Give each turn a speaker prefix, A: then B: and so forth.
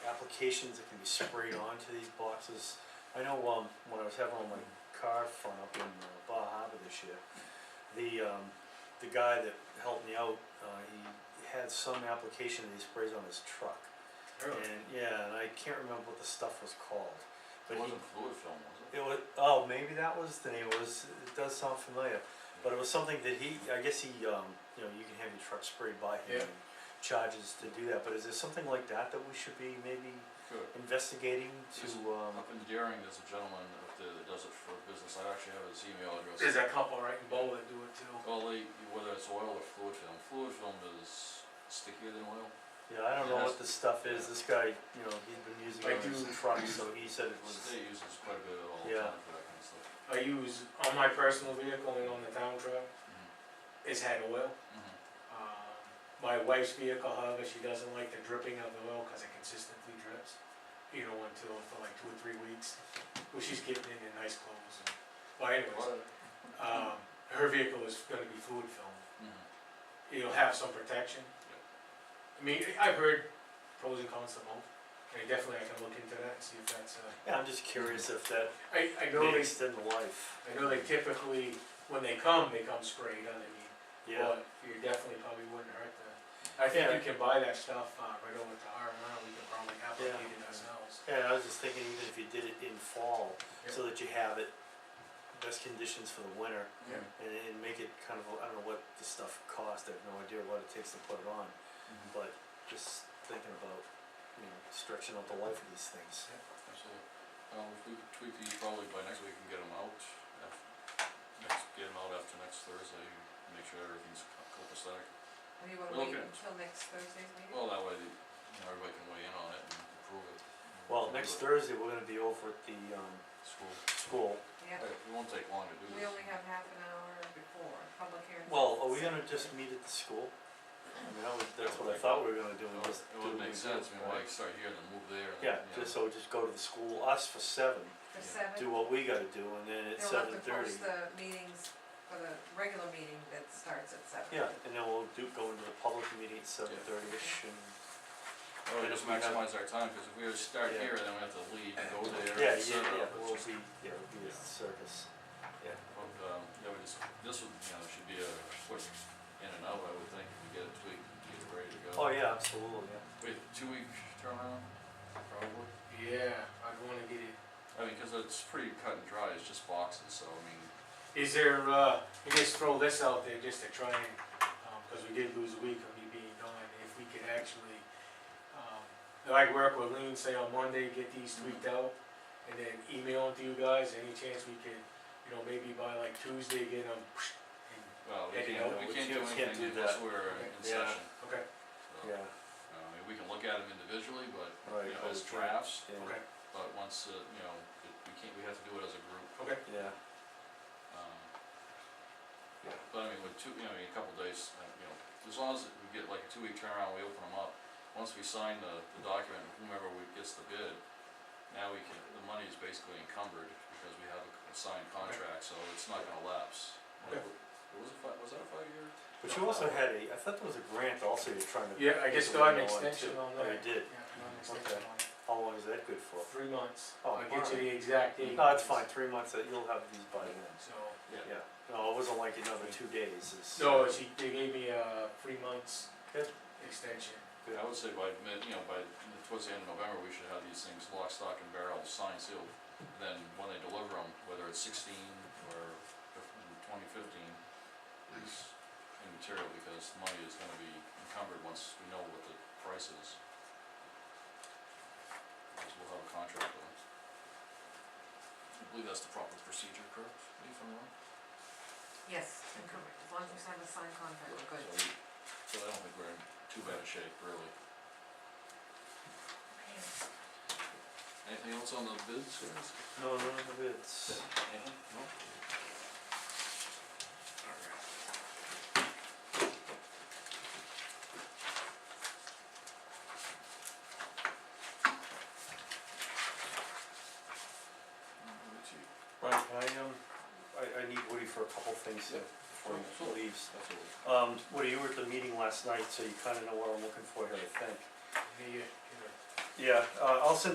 A: applications that can be sprayed onto these boxes. I know, um, when I was having all my car fun up in uh, Bar Harbor this year, the, um, the guy that helped me out, uh, he had some application that he sprays on his truck.
B: Really?
A: And, yeah, and I can't remember what the stuff was called, but
B: It
A: he,
B: wasn't fluid film, was it?
A: it was, oh, maybe that was the name, it was, it does sound familiar, but it was something that he, I guess he, um, you know, you can have your truck sprayed by him.
B: Yeah.
A: and Charges to do that, but is there something like that that we should be maybe
B: Good.
A: investigating to,
B: Yes.
A: um,
B: Up in Deering, there's a gentleman up there that does it for business, I actually have his email address.
C: There's a couple right in Bowl that do it too.
B: Well, they, whether it's oil or fluid film, fluid film is stickier than oil.
A: yeah, I don't know
B: Yeah.
A: what this stuff is, this guy, you know, he's been using
C: I
A: it on
C: do-
A: his truck, so he said it was,
B: State uses quite a bit of it all the
A: Yeah.
B: time for that kind of stuff.
C: I use on my personal vehicle and on the town truck,
B: Mm-hmm.
C: it's had oil.
B: Mhm.
C: Um, My wife's vehicle, however, she doesn't like the dripping of the oil because it consistently drips, you know, until for like two or three weeks. Well, she's getting into nice clothes and, well anyways,
B: What?
C: um, her vehicle is gonna be fluid filled.
B: Mhm.
C: It'll have some protection. I mean, I've heard pros and cons to both, and definitely I can look into that and see if that's, uh,
A: yeah, I'm just curious if that
C: I, I know
A: may
C: they
A: extend the life.
C: I know they typically, when they come, they come sprayed underneath,
A: Yeah,
C: but you definitely probably wouldn't hurt the, I think you can buy that stuff, uh, right over to R and R, we could probably
A: Yeah.
C: applicate it ourselves.
A: yeah, I was just thinking even if you did it in fall, so that you have it, best conditions for the winter,
B: Yeah.
A: and, and make it kind of, I don't know what the stuff costs, I have no idea what it takes to put it on,
B: Mhm.
A: but just thinking about, you know, stretching out the life of these things.
B: Absolutely. Well, if we could tweak these, probably by next week we can get them out, af- next, get them out after next Thursday, and make sure everything's co- copacetic.
D: Or you wanna
B: We'll
D: wait
B: look at it.
D: until next Thursday's meeting?
B: Well, that way, the- you know, everybody can weigh in on it and approve it.
A: Well, next
B: Approve
A: Thursday, we're gonna be over at the, um,
B: it. School,
A: school.
D: Yeah,
B: it won't take long to do this.
D: we only have half an hour before public hearing.
A: Well, are we gonna just meet at the school? I mean, that was, that's what I thought we were gonna do,
B: It
A: and
B: would-
A: just
B: It
A: do
B: would
A: what we
B: make sense, I
A: did,
B: mean,
A: right?
B: why start here and then move there and.
A: Yeah,
B: you know,
A: just, so just go to the school, us for seven,
D: For
B: yeah.
A: do
D: seven,
A: what we gotta do, and then at
D: they'll have
A: seven
D: to
A: thirty,
D: post the meetings for the regular meeting that starts at seven.
A: yeah, and then we'll do, go into the public meeting at seven thirty-ish, and
B: That
A: and
B: would just
A: if we have-
B: maximize our time, cause if we were to start
A: Yeah.
B: here, then we have to leave and go there
A: Yeah, yeah,
B: and set
A: yeah,
B: up, it's
A: we'll
B: just-
A: be, yeah, we'll be a circus.
B: But, um, yeah, we just, this would, you know, should be a quick in and out, I would think, if we get it tweaked, and get it ready to go.
A: Oh, yeah, absolutely, yeah.
B: Wait, two week turnaround, probably?
C: Yeah, I'd wanna get it,
B: I mean, cause it's pretty cut and dry, it's just boxes, so I mean,
C: is there, uh, you just throw this out there just to try and, um 'cause cause we did lose a week of me being gone, if we could actually, um, like work with Lean, say on Monday, get these
A: Mm-hmm.
C: tweaked out, and then email them to you guys, any chance we could, you know, maybe by like Tuesday, get them, and
B: well, we
C: Yeah, you
B: can't,
C: know,
B: we
A: we
B: can't do
A: can't- can't do
B: anything unless
A: that.
B: we're in
A: Yeah.
B: session,
C: Okay,
B: so.
A: Yeah,
B: uh, I mean, we can look at them individually, but,
A: Right,
B: you know,
A: but
B: as
A: we can't-
B: drafts,
A: yeah,
C: okay,
B: but once, uh, you know, it- we can't, we have to do it as a group,
C: okay.
A: yeah,
B: um.
A: Yeah.
B: But I mean, with two, you know, I mean, a couple days, uh, you know, as long as we get like a two week turnaround, we open them up, once we sign the, the document, whomever we gets the bid, now we can, the money is basically encumbered, because we have a c- a signed contract, so it's not gonna lapse.
C: Okay.
B: Was it fi- was that a five year?
A: but you also had a, I thought there was a grant also you're trying to.
C: Yeah, I just
A: get
C: got
A: going on,
C: an
A: too.
C: extension on
A: Oh, you
C: that.
A: did,
C: Yeah, I got an extension
A: Okay.
C: on it.
A: how long is that good for?
C: Three months.
A: Oh,
C: I'll get you
A: alright.
C: the exact date.
A: No, it's fine, three months, uh, you'll have these by then,
C: So,
A: yeah, no, it wasn't like another two days, it's.
C: no, she, they gave me a three months
A: Good.
C: extension.
B: I would say by mid, you know, by, towards the end of November, we should have these things lock, stock and barrel, signed, sealed. Then when they deliver them, whether it's sixteen or twenty fifteen, is immaterial because money is gonna be encumbered once we know what the price is. Because we'll have a contract with them. I believe that's the proper procedure, correct? Lee, if I'm wrong?
D: Yes, and come- as long as we sign the signed contract, we're good.
B: So we- So I don't think we're in too bad a shape, really.
D: Okay.
B: Anything else on the bids, guys?
A: No, none of the bids.
B: Anything? No?
A: Brian, can I, um, I, I need Woody for a couple things
B: Yeah.
A: uh, before
B: Sure.
A: he leaves.
B: Absolutely.
A: Um, Woody, you were at the meeting last night, so you kinda know what I'm looking for here, I think.
C: Here, you- here.
A: Yeah, uh, I'll send